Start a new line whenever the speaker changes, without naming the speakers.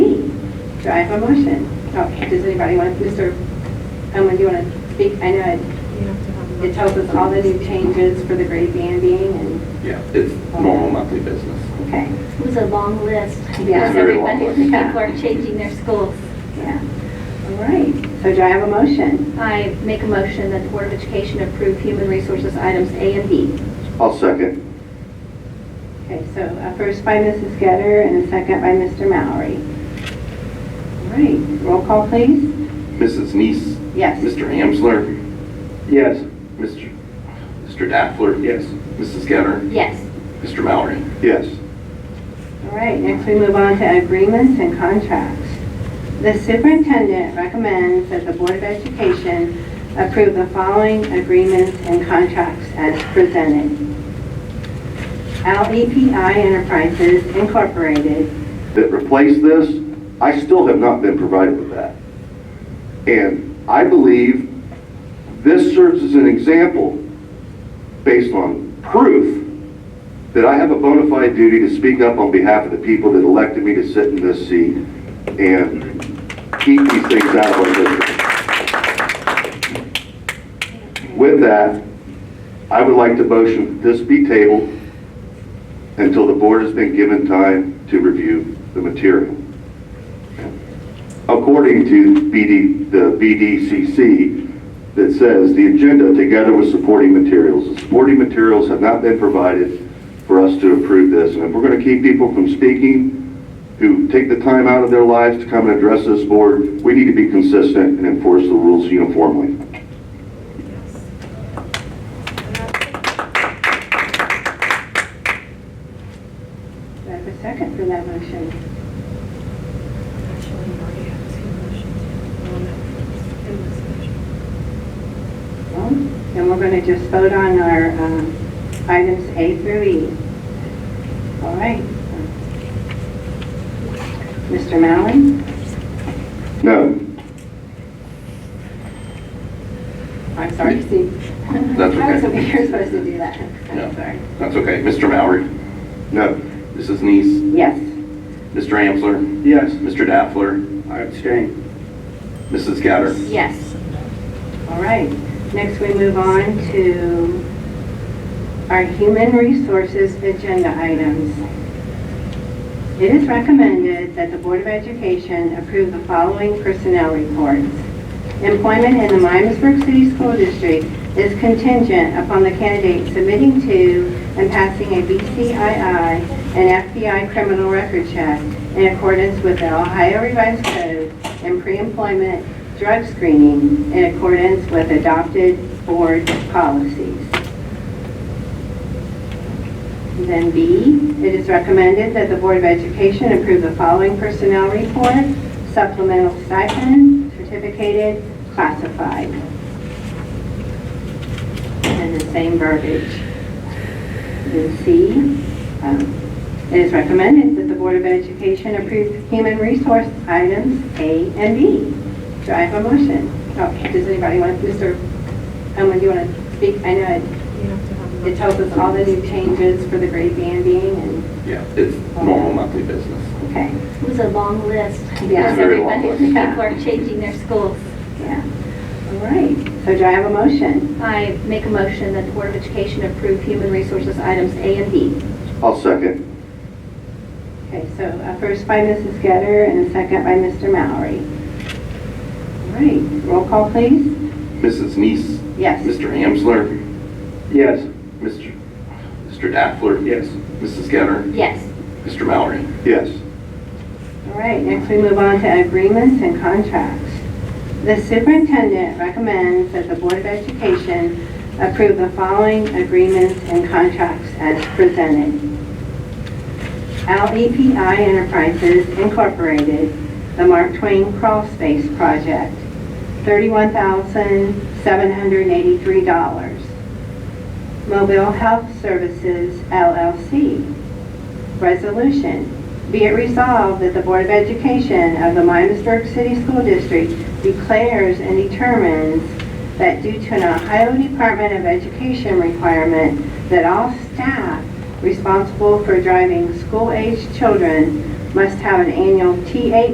Do I have a motion? Oh, does anybody want, Mr. Owen, do you want to speak? I know it-
You have to have.
it tells us all the new changes for the grade banding and,
Yeah, it's normal monthly business.
okay,
It was a long list.
Yeah.
Because
Very long
everybody,
list.
people are changing their schools.
yeah. All right, so do I have a motion?
I make a motion that the Board of Education approve human resources items A and B.
I'll second.
Okay, so uh, first by Mrs. Getter and a second by Mr. Mallory. All right, roll call, please.
Mrs. Neese,
Yes.
Mr. Amsler,
Yes.
Mr. Mr. Daffler.
Yes.
Mrs. Getter,
Yes.
Mr. Mallory.
Yes.
All right, next we move on to agreements and contracts. The superintendent recommends that the Board of Education approve the following agreements and contracts as presented. LEPI Enterprises Incorporated,
That replaced this, I still have not been provided with that. And I believe this serves as an example based on proof that I have a bona fide duty to speak up on behalf of the people that elected me to sit in this seat and keep these things out of our district. With that, I would like to motion that this be tabled until the board has been given time to review the material. According to BD, the BDCC, that says the agenda together with supporting materials. The supporting materials have not been provided for us to approve this. And if we're going to keep people from speaking, who take the time out of their lives to come and address this board, we need to be consistent and enforce the rules uniformly.
do I have a second for that motion?
Actually, we already have two motions. One that was in this motion.
Well, Then we're going to just vote on our um, items A through E. All right. Mr. Mallory?
No,
I'm sorry, Steve.
That's
I was
okay.
over here supposed to do that.
No.
I'm sorry.
That's okay. Mr. Mallory,
no.
Mrs. Neese,
Yes.
Mr. Amsler,
Yes.
Mr. Daffler,
I abstain.
Mrs. Getter.
Yes.
All right. Next, we move on to our human resources agenda items. It is recommended that the Board of Education approve the following personnel reports. Employment in the Myamisburg City School District is contingent upon the candidate submitting to and passing a BCII and FBI criminal record check in accordance with the Ohio Revised Code and pre-employment drug screening in accordance with adopted board policies. Then B, it is recommended that the Board of Education approve the following personnel report, supplemental stipend, certificated, classified. And the same verbiage. Then C, um, it is recommended that the Board of Education approve human resource items A and B. Do I have a motion? Oh, does anybody want, Mr. Owen, do you want to speak? I know it
You have to have.
it tells us all the new changes for the grade banding and,
Yeah, it's normal monthly business.
okay,
It was a long list.
Yeah.
Because
Very long
everybody,
list.
people are changing their schools.
yeah. All right, so do I have a motion?
I make a motion that the Board of Education approve human resources items A and B.
I'll second.
Okay, so uh, first by Mrs. Getter and a second by Mr. Mallory. All right, roll call please.
Mrs. Neese,
Yes.
Mr. Amsler,
Yes.
Mr. Mr. Daffler.
Yes.
Mrs. Getter,
Yes.
Mr. Mallory.
Yes.
All right, next we move on to agreements and contracts. The superintendent recommends that the Board of Education approve the following agreements and contracts as presented. LEPI Enterprises Incorporated, the Mark Twain Crawl Space Project, $31,783. Mobile Health Services LLC, resolution, be it resolved that the Board of Education of the Myamisburg City School District declares and determines that due to an Ohio Department of Education requirement that all staff responsible for driving school-aged children must have an annual TA